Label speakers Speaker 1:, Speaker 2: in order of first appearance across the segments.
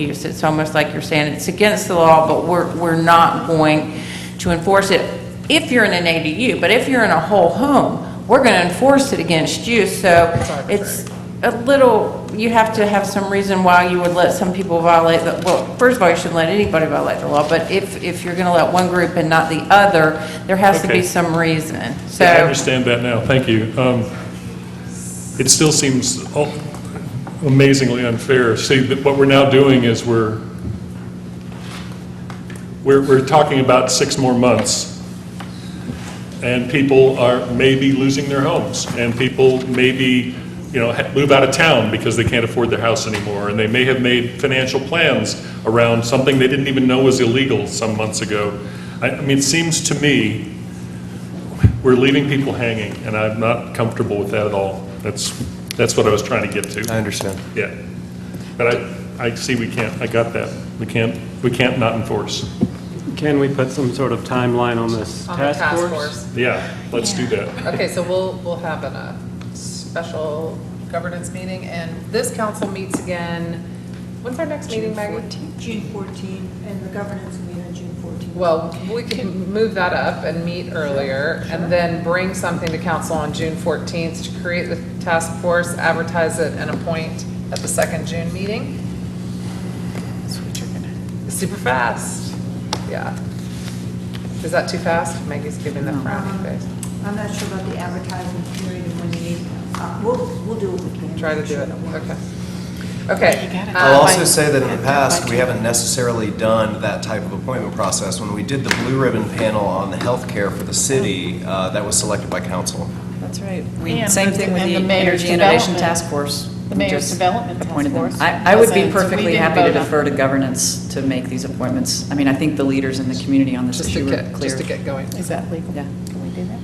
Speaker 1: use. It's almost like you're saying it's against the law, but we're, we're not going to enforce it if you're in an ADU, but if you're in a whole home, we're going to enforce it against you, so it's a little, you have to have some reason why you would let some people violate the, well, first of all, you shouldn't let anybody violate the law, but if, if you're going to let one group and not the other, there has to be
Speaker 2: Okay.
Speaker 1: some reason, so.
Speaker 2: Yeah, I understand that now, thank you. Um, It still seems al- amazingly unfair. See, that what we're now doing is we're, we're, we're talking about six more months, and people are maybe losing their homes, and people maybe, you know, ha- move out of town because they can't afford their house anymore, and they may have made financial plans around something they didn't even know was illegal some months ago. I, I mean, it seems to me we're leaving people hanging, and I'm not comfortable with that at all. That's, that's what I was trying to get
Speaker 3: I
Speaker 2: to.
Speaker 3: understand.
Speaker 2: Yeah. But I, I see we can't, I got that. We can't, we can't not enforce.
Speaker 4: Can we put some sort of timeline on this
Speaker 5: On the
Speaker 4: task
Speaker 5: task
Speaker 4: force?
Speaker 5: force.
Speaker 2: Yeah, let's do that.
Speaker 5: Okay, so we'll, we'll have an, a special governance meeting, and this council meets again, when's our next meeting, Maggie?
Speaker 6: June 14, and the governance will be on June 14.
Speaker 5: Well, we can move that up and meet earlier, and then bring something to council on June 14th to create the task force, advertise it, and appoint at the second June meeting. Super fast, yeah. Is that too fast? Maggie's giving the frowny face.
Speaker 6: Um, I'm not sure about the advertising period and when you need, uh, we'll, we'll do what we can.
Speaker 5: Try to do it, okay. Okay.
Speaker 3: I'll
Speaker 5: um,
Speaker 3: also say that in the past, we haven't necessarily done that type of appointment process. When we did the blue ribbon panel on the healthcare for the city, uh, that was selected by council.
Speaker 7: That's right.
Speaker 8: And
Speaker 7: Same thing with
Speaker 8: the-
Speaker 7: the
Speaker 8: and the mayor's
Speaker 7: Energy Innovation
Speaker 8: development-
Speaker 7: Task Force.
Speaker 8: the mayor's
Speaker 7: We just
Speaker 8: development task
Speaker 7: appointed them.
Speaker 8: force
Speaker 7: I, I would be
Speaker 8: wasn't- we
Speaker 7: perfectly
Speaker 8: didn't
Speaker 7: happy to
Speaker 8: vote on
Speaker 7: defer to governance to make these appointments. I mean, I think the leaders in the community on this
Speaker 5: Just to
Speaker 7: issue are
Speaker 5: get, just to
Speaker 7: clear.
Speaker 5: get going.
Speaker 8: Is that legal?
Speaker 7: Yeah.
Speaker 8: Can we do that?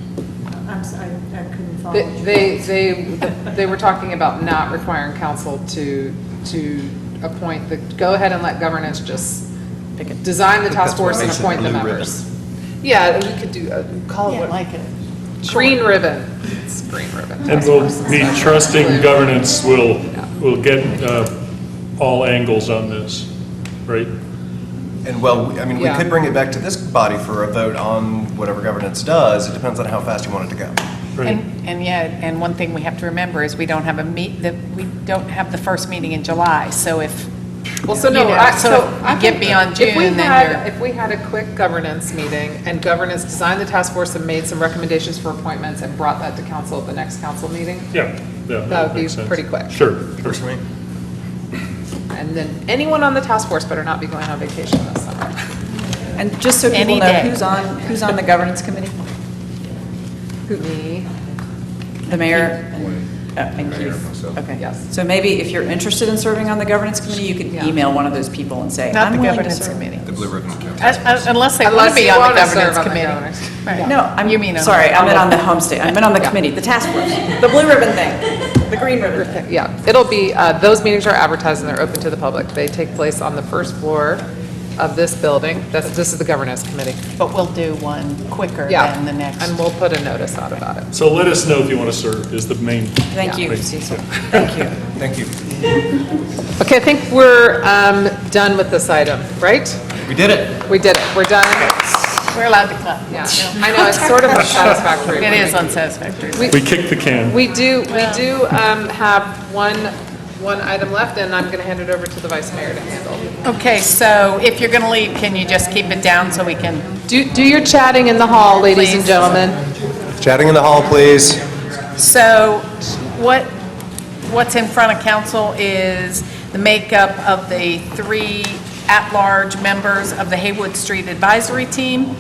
Speaker 6: I'm sorry, I couldn't follow.
Speaker 5: They,
Speaker 6: you.
Speaker 5: they, they- they were talking about not requiring council to, to appoint the, go ahead and let governance just
Speaker 7: Pick it.
Speaker 5: design the task
Speaker 3: That's what
Speaker 5: force and
Speaker 3: makes it
Speaker 5: appoint the
Speaker 3: blue ribbon.
Speaker 5: members. Yeah, you could do, uh, call
Speaker 8: Yeah,
Speaker 5: it what,
Speaker 8: like it.
Speaker 5: green ribbon. It's green ribbon.
Speaker 2: And we'll be trusting governance will, will get uh, all angles on this, right?
Speaker 3: And well, we- I mean, we
Speaker 5: Yeah.
Speaker 3: could bring it back to this body for a vote on whatever governance does. It depends on how fast you want it to go.
Speaker 2: Right.
Speaker 8: And, and yeah, and one thing we have to remember is we don't have a meet, that, we don't have the first meeting in July, so if,
Speaker 5: Well, so
Speaker 8: You
Speaker 5: no,
Speaker 8: know,
Speaker 5: I,
Speaker 8: so
Speaker 5: so
Speaker 8: if
Speaker 5: I
Speaker 8: you get
Speaker 5: think
Speaker 8: beyond
Speaker 5: if we
Speaker 8: June, then
Speaker 5: had-
Speaker 8: you're-
Speaker 5: If we had a quick governance meeting and governance designed the task force and made some recommendations for appointments and brought that to council at the next council meeting,
Speaker 2: Yeah, yeah.
Speaker 5: That would be
Speaker 2: makes sense.
Speaker 5: pretty quick.
Speaker 2: Sure, sure.
Speaker 5: and then anyone on the task force better not be going on vacation this summer.
Speaker 7: And just so people
Speaker 8: Any
Speaker 7: know,
Speaker 8: day.
Speaker 7: who's on, who's on the governance committee?
Speaker 5: Me,
Speaker 7: The mayor? and- oh, And Keith? Okay.
Speaker 5: Yes.
Speaker 7: So maybe if you're interested in serving on the governance committee, you could
Speaker 5: Yeah.
Speaker 7: email one of those people and say,
Speaker 8: not
Speaker 7: I'm
Speaker 8: the
Speaker 7: willing to
Speaker 8: governance
Speaker 7: serve.
Speaker 8: committee.
Speaker 3: The blue ribbon council.
Speaker 8: Un- un- Unless they want to
Speaker 5: Unless
Speaker 8: be
Speaker 5: you
Speaker 8: on the
Speaker 5: wanna serve
Speaker 8: governance
Speaker 5: on the
Speaker 8: committee.
Speaker 5: governance.
Speaker 8: Right.
Speaker 7: No, I'm,
Speaker 8: You mean on
Speaker 7: sorry,
Speaker 8: the-
Speaker 7: I meant on the homestay, I meant on the committee, the task force, the blue ribbon thing, the green ribbon thing.
Speaker 5: yeah, it'll be, uh, those meetings are advertised and they're open to the public. They take place on the first floor of this building. That's, this is the governance committee.
Speaker 8: But we'll do one quicker
Speaker 5: Yeah.
Speaker 8: than the next.
Speaker 5: And we'll put a notice out about it.
Speaker 2: So let us know if you want to serve is the main.
Speaker 7: Thank you,
Speaker 2: Right.
Speaker 7: Cecil, thank you.
Speaker 3: Thank you.
Speaker 5: Okay, I think we're, um, done with this item, right?
Speaker 3: We did it.
Speaker 5: We did it. We're done.
Speaker 8: We're allowed to clap.
Speaker 5: Yeah, I know, it's sort of unsatisfactory.
Speaker 8: It is unsatisfactory.
Speaker 2: We kicked the can.
Speaker 5: We do, we do um, have one, one item left, and I'm going to hand it over to the vice mayor to handle.
Speaker 8: Okay, so if you're going to leave, can you just keep it down so we can
Speaker 5: Do, do your chatting in the hall, ladies and
Speaker 8: Please.
Speaker 5: gentlemen.
Speaker 3: Chatting in the hall, please.
Speaker 8: So what, what's in front of council is the makeup of the three at-large members of the Haywood Street Advisory Team.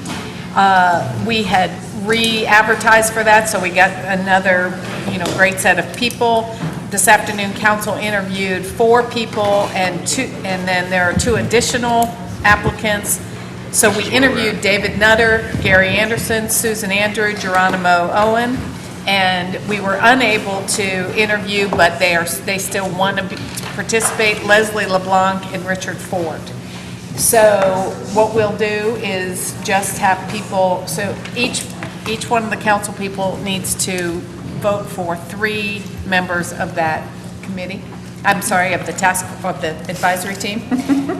Speaker 8: Uh, We had re-advertised for that, so we got another, you know, great set of people. This afternoon, council interviewed four people and two, and then there are two additional applicants. So we interviewed David Nutter, Gary Anderson, Susan Andrew, Geronimo Owen, and we were unable to interview, but they are, they still want to be- participate, Leslie LeBlanc and Richard Ford. So what we'll do is just have people, so each, each one of the council people needs to vote for three members of that committee. I'm sorry, of the task, of the advisory team.